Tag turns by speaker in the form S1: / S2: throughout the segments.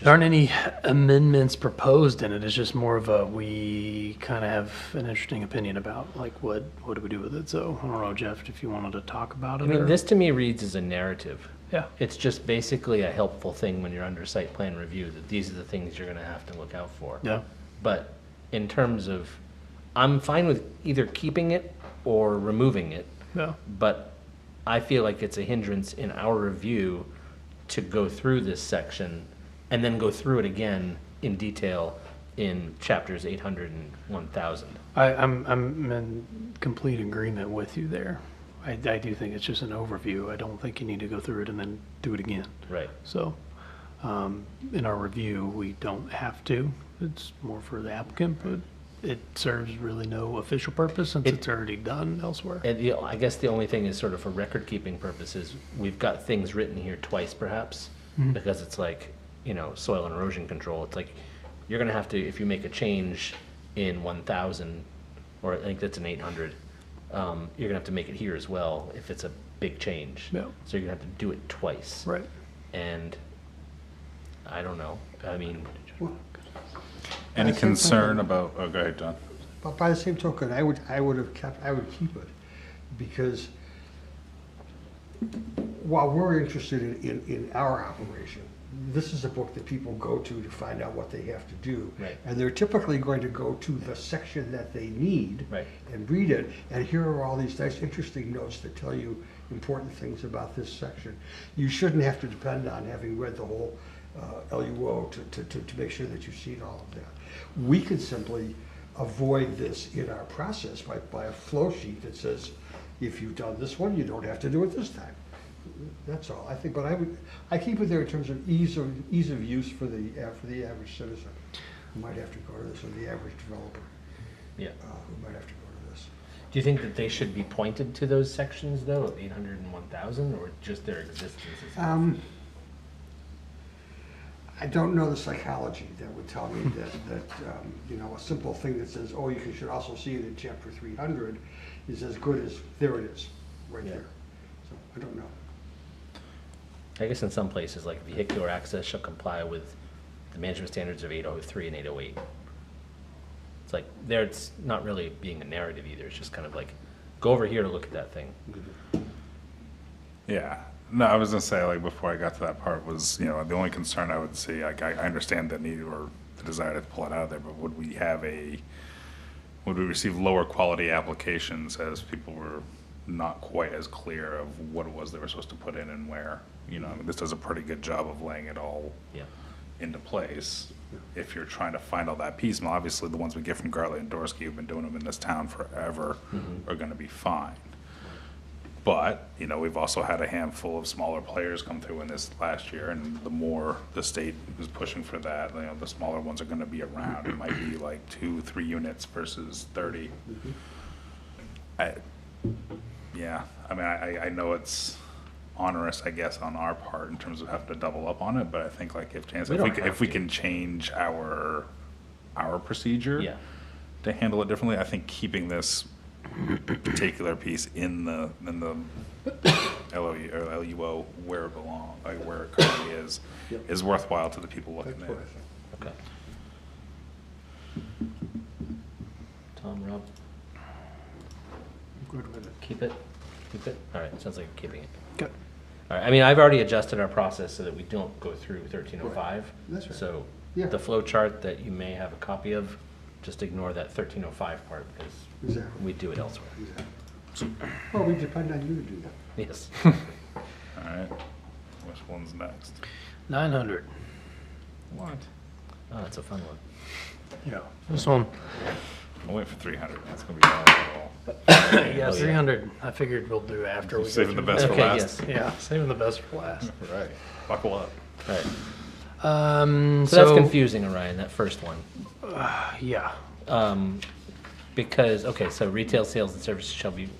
S1: There aren't any amendments proposed in it. It's just more of a, we kind of have an interesting opinion about, like, what, what do we do with it? So I don't know, Jeff, if you wanted to talk about it.
S2: I mean,
S1: or-
S2: this to me reads as a narrative.
S1: Yeah.
S2: It's just basically a helpful thing when you're under site plan review, that these are the things you're gonna have to look out for.
S1: Yeah.
S2: But in terms of, I'm fine with either keeping it or removing it,
S1: Yeah.
S2: but I feel like it's a hindrance in our review to go through this section and then go through it again in detail in chapters 800 and 1000.
S1: I, I'm, I'm in complete agreement with you there. I, I do think it's just an overview. I don't think you need to go through it and then do it again.
S2: Right.
S1: So, um, in our review, we don't have to. It's more for the applicant, but it serves really no official purpose since
S2: It-
S1: it's already done elsewhere.
S2: And the, I guess the only thing is sort of for record-keeping purposes, we've got things written here twice perhaps,
S1: Mm-hmm.
S2: because it's like, you know, soil and erosion control, it's like, you're gonna have to, if you make a change in one thousand, or I think that's an eight hundred, um, you're gonna have to make it here as well, if it's a big change.
S1: Yeah.
S2: So you're gonna have to do it twice.
S1: Right.
S2: And, I don't know, I mean,
S3: Any
S4: I think that's-
S3: concern about, oh, go ahead, John.
S4: But by the same token, I would, I would have kept, I would keep it, because while we're interested in, in, in our operation, this is a book that people go to to find out what they have to do.
S2: Right.
S4: And they're typically going to go to the section that they need.
S2: Right.
S4: And read it, and here are all these nice, interesting notes that tell you important things about this section. You shouldn't have to depend on having read the whole uh, LUO to, to, to, to make sure that you've seen all of that. We could simply avoid this in our process by, by a flow sheet that says, if you've done this one, you don't have to do it this time. That's all, I think, but I would, I keep it there in terms of ease of, ease of use for the, uh, for the average citizen. Who might have to go to this, or the average developer,
S2: yeah.
S4: uh, who might have to go to this.
S2: Do you think that they should be pointed to those sections though, of eight hundred and one thousand, or just their existence is
S4: Um, I don't know the psychology that would tell me that, that, um, you know, a simple thing that says, oh, you can- should also see it in chapter three hundred is as good as, there it is, right
S2: Yeah.
S4: there. So, I don't know.
S2: I guess in some places, like vehicular access shall comply with the management standards of eight oh three and eight oh eight. It's like, there, it's not really being a narrative either, it's just kind of like, go over here to look at that thing.
S3: Yeah, no, I was gonna say, like, before I got to that part was, you know, the only concern I would see, like, I, I understand the need or the desire to pull it out of there, but would we have a, would we receive lower quality applications as people were not quite as clear of what it was they were supposed to put in and where? You know, I mean, this does a pretty good job of laying it all
S2: Yeah,
S3: into place. If you're trying to find all that piecemeal, obviously the ones we get from Gartley and Dorsey, who've been doing them in this town forever, are gonna be fine. But, you know, we've also had a handful of smaller players come through in this last year, and the more the state is pushing for that, you know, the smaller ones are gonna be around. It might be like two, three units versus thirty. I, yeah, I mean, I, I- I know it's onerous, I guess, on our part in terms of having to double up on it, but I think like if chance,
S2: We
S3: if we,
S2: don't
S3: c-
S2: have
S3: if we
S2: to.
S3: can change our, our procedure
S2: yeah,
S3: to handle it differently, I think keeping this particular piece in the, in the LOU, or LUO where it belong, like where it currently is,
S4: Yep.
S3: is worthwhile to the people
S4: That's
S3: looking at
S4: what I
S3: it.
S4: think.
S2: okay. Tom, Rob,
S1: Good with it.
S2: keep it, keep it, all right, sounds like you're keeping it.
S1: Good.
S2: All right, I mean, I've already adjusted our process so that we don't go through thirteen oh five.
S4: That's right.
S2: So
S4: Yeah.
S2: the flow chart that you may have a copy of, just ignore that thirteen oh five part because
S4: Exactly.
S2: we do it elsewhere.
S4: Exactly. Well, we depend on you to do that.
S2: Yes. Oh,
S3: All right, which one's next?
S1: Nine hundred.
S3: What?
S2: Oh, that's a fun one.
S1: Yeah. This one.
S3: I'll wait for three hundred, that's gonna be all.
S1: Yeah,
S2: Oh, yeah.
S1: three hundred. I figured we'll do after we go
S3: Saving the
S1: through
S3: best
S1: that.
S3: for
S2: Okay,
S3: last.
S2: yes.
S1: Yeah, saving the best for last.
S3: Right. Buckle up.
S2: All right.
S1: Um,
S2: So that's confusing, Orion, that first one.
S1: Yeah.
S2: Um, because, okay, so retail sales and services shall be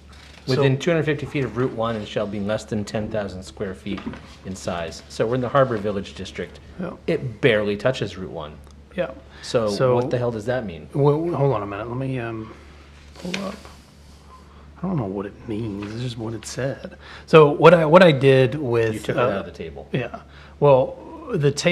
S2: within
S1: So-
S2: two hundred fifty feet of Route One and shall be less than ten thousand square feet in size. So we're in the Harbor Village District.
S1: Yeah.
S2: It barely touches Route One.
S1: Yeah.
S2: So
S1: So-
S2: what the hell does that mean?
S1: Well, hold on a minute. Let me um, pull up. I don't know what it means. It's just what it said. So what I what I did with
S2: You took it
S1: uh,
S2: out of the table.
S1: yeah. Well, the table.